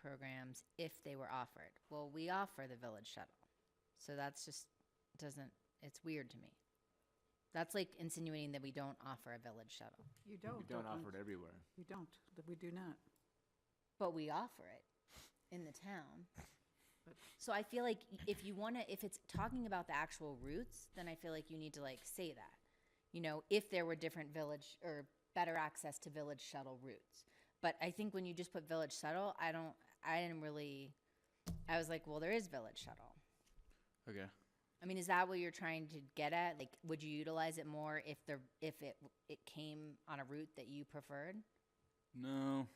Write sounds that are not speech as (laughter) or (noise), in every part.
programs if they were offered. Well, we offer the village shuttle. So that's just doesn't it's weird to me. That's like insinuating that we don't offer a village shuttle. You Oh, don't. We don't we? offer it everywhere. You don't, that we do not. But we offer it in the town. But- So I feel like if you want to, if it's talking about the actual routes, then I feel like you need to like say that. You know, if there were different village or better access to village shuttle routes. But I think when you just put village shuttle, I don't, I didn't really, I was like, well, there is village shuttle. Okay. I mean, is that what you're trying to get at? Like, would you utilize it more if the, if it, it came on a route that you preferred? No,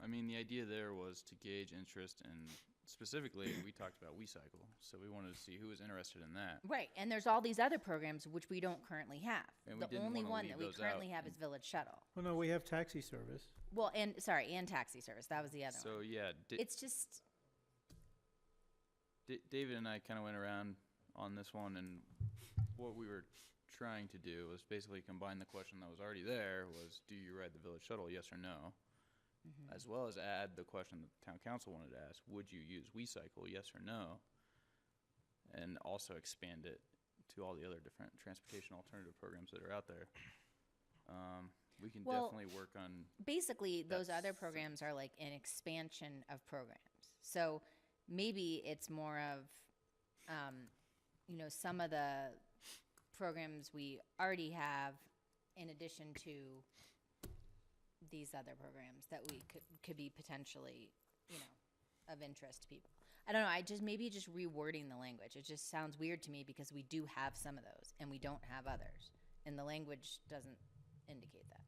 I mean the idea there was to gauge interest, and specifically, we talked about WeCycle, so we wanted to see who was interested in that. Right, and there's all these other programs which we don't currently have. And we The didn't only wanna one leave that we those currently out have is Village Shuttle. Well, no, we have taxi service. Well, and, sorry, and taxi service, that was the other So one. yeah, Da- It's just, D- David and I kind of went around on this one, and what we were trying to do was basically combine the question that was already there: was do you ride the village shuttle, yes or no, mm-hmm. as well as add the question that the town council wanted to ask: would you use WeCycle, yes or no, and also expand it to all the other different transportation alternative programs that are out there. Um, we can Well- definitely work on basically, those other That's- programs are like an expansion of programs. So maybe it's more of, um, you know, some of the programs we already have in addition to these other programs that we could, could be potentially, you know, of interest to people. I don't know, I just, maybe just rewording the language. It just sounds weird to me because we do have some of those and we don't have others. And the language doesn't indicate that.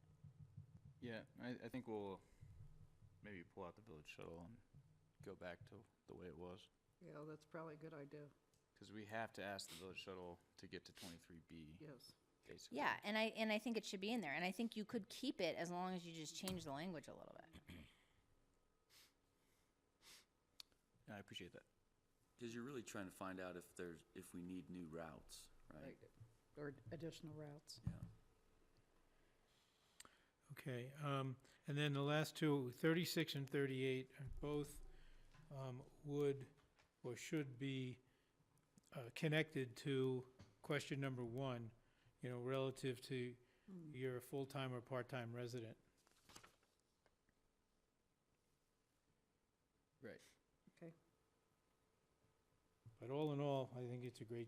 Yeah, I, I think we'll maybe pull out the village shuttle and go back to the way it was. Yeah, that's probably a good idea, Because we have to ask the village shuttle to get to twenty-three B, yes. basically. Yeah, and I and I think it should be in there, and I think you could keep it as long as you just change the language a little bit. And I appreciate that. Because you're really trying to find out if there's, if we need new routes, right? Or additional routes. Yeah. Okay, um, and then the last two, 36 and 38, are both um, would or should be uh, connected to question number one, you know, relative to you're a full-time or part-time resident. Right. Okay, But all in all, I think it's a great,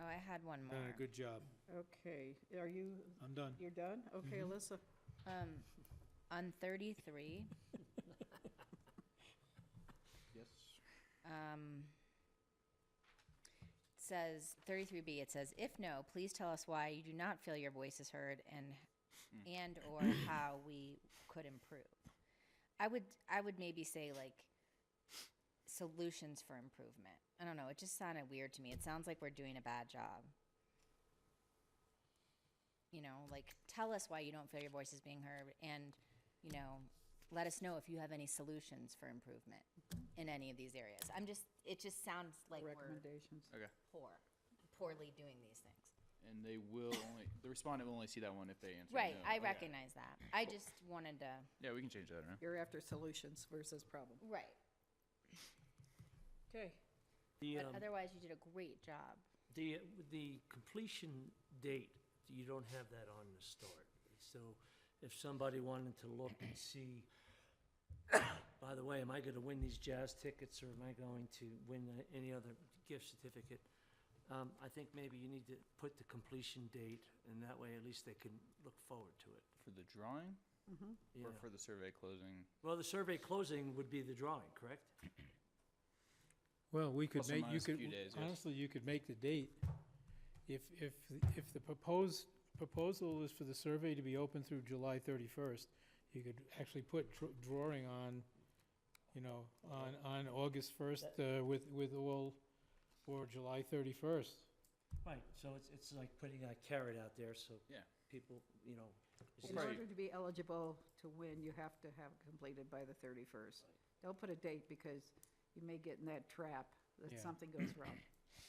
Oh, I had one more. done a Uh, good job. okay. Are you, I'm done. you're done? Okay, Alyssa, Um, on thirty-three, Yes. um, it says thirty-three B. It says, if no, please tell us why you do not feel your voice is heard and and or how we could improve. I would I would maybe say like solutions for improvement. I don't know. It just sounded weird to me. It sounds like we're doing a bad job. You know, like tell us why you don't feel your voice is being heard and, you know, let us know if you have any solutions for improvement in any of these areas. I'm just, it just sounds like we're recommendations. Okay. poor, poorly doing these things. And they will only, the respondent will only see that one if they answer Right. no. I Okay. recognize that. I just wanted to, Yeah, we can change that around. You're after solutions versus problem. right. Okay, The, But um, otherwise, you did a great job. the, the completion date, you don't have that on the start. So if somebody wanted to look and see, (coughs) by the way, am I gonna win these jazz tickets or am I going to win a- any other gift certificate? Um, I think maybe you need to put the completion date and that way at least they can look forward to it. For the drawing Yeah. or for the survey closing? Well, the survey closing would be the drawing, correct? Well, we could Plus or make, you minus a few could, days, yes. honestly, you could make the date. If, if, if the proposed, proposal is for the survey to be open through July thirty-first, you could actually put dr- drawing on, you know, on, on August first, uh, with, with all, or July thirty-first. Right, so it's, it's like putting a carrot out there so Yeah. people, you know. in order to be eligible to win, you have to have completed by the 31st. Don't put a date because you may get in that trap that Yeah. something goes wrong.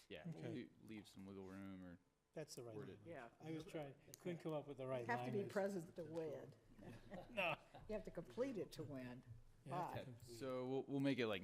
Yeah, we'll Okay. le- leave some wiggle room or, That's the right Word line. it. Yeah. I was trying, couldn't come up with the right You line. have to be I- present to win. You have to complete it to win. you have to But- complete. so we'll, we'll make it like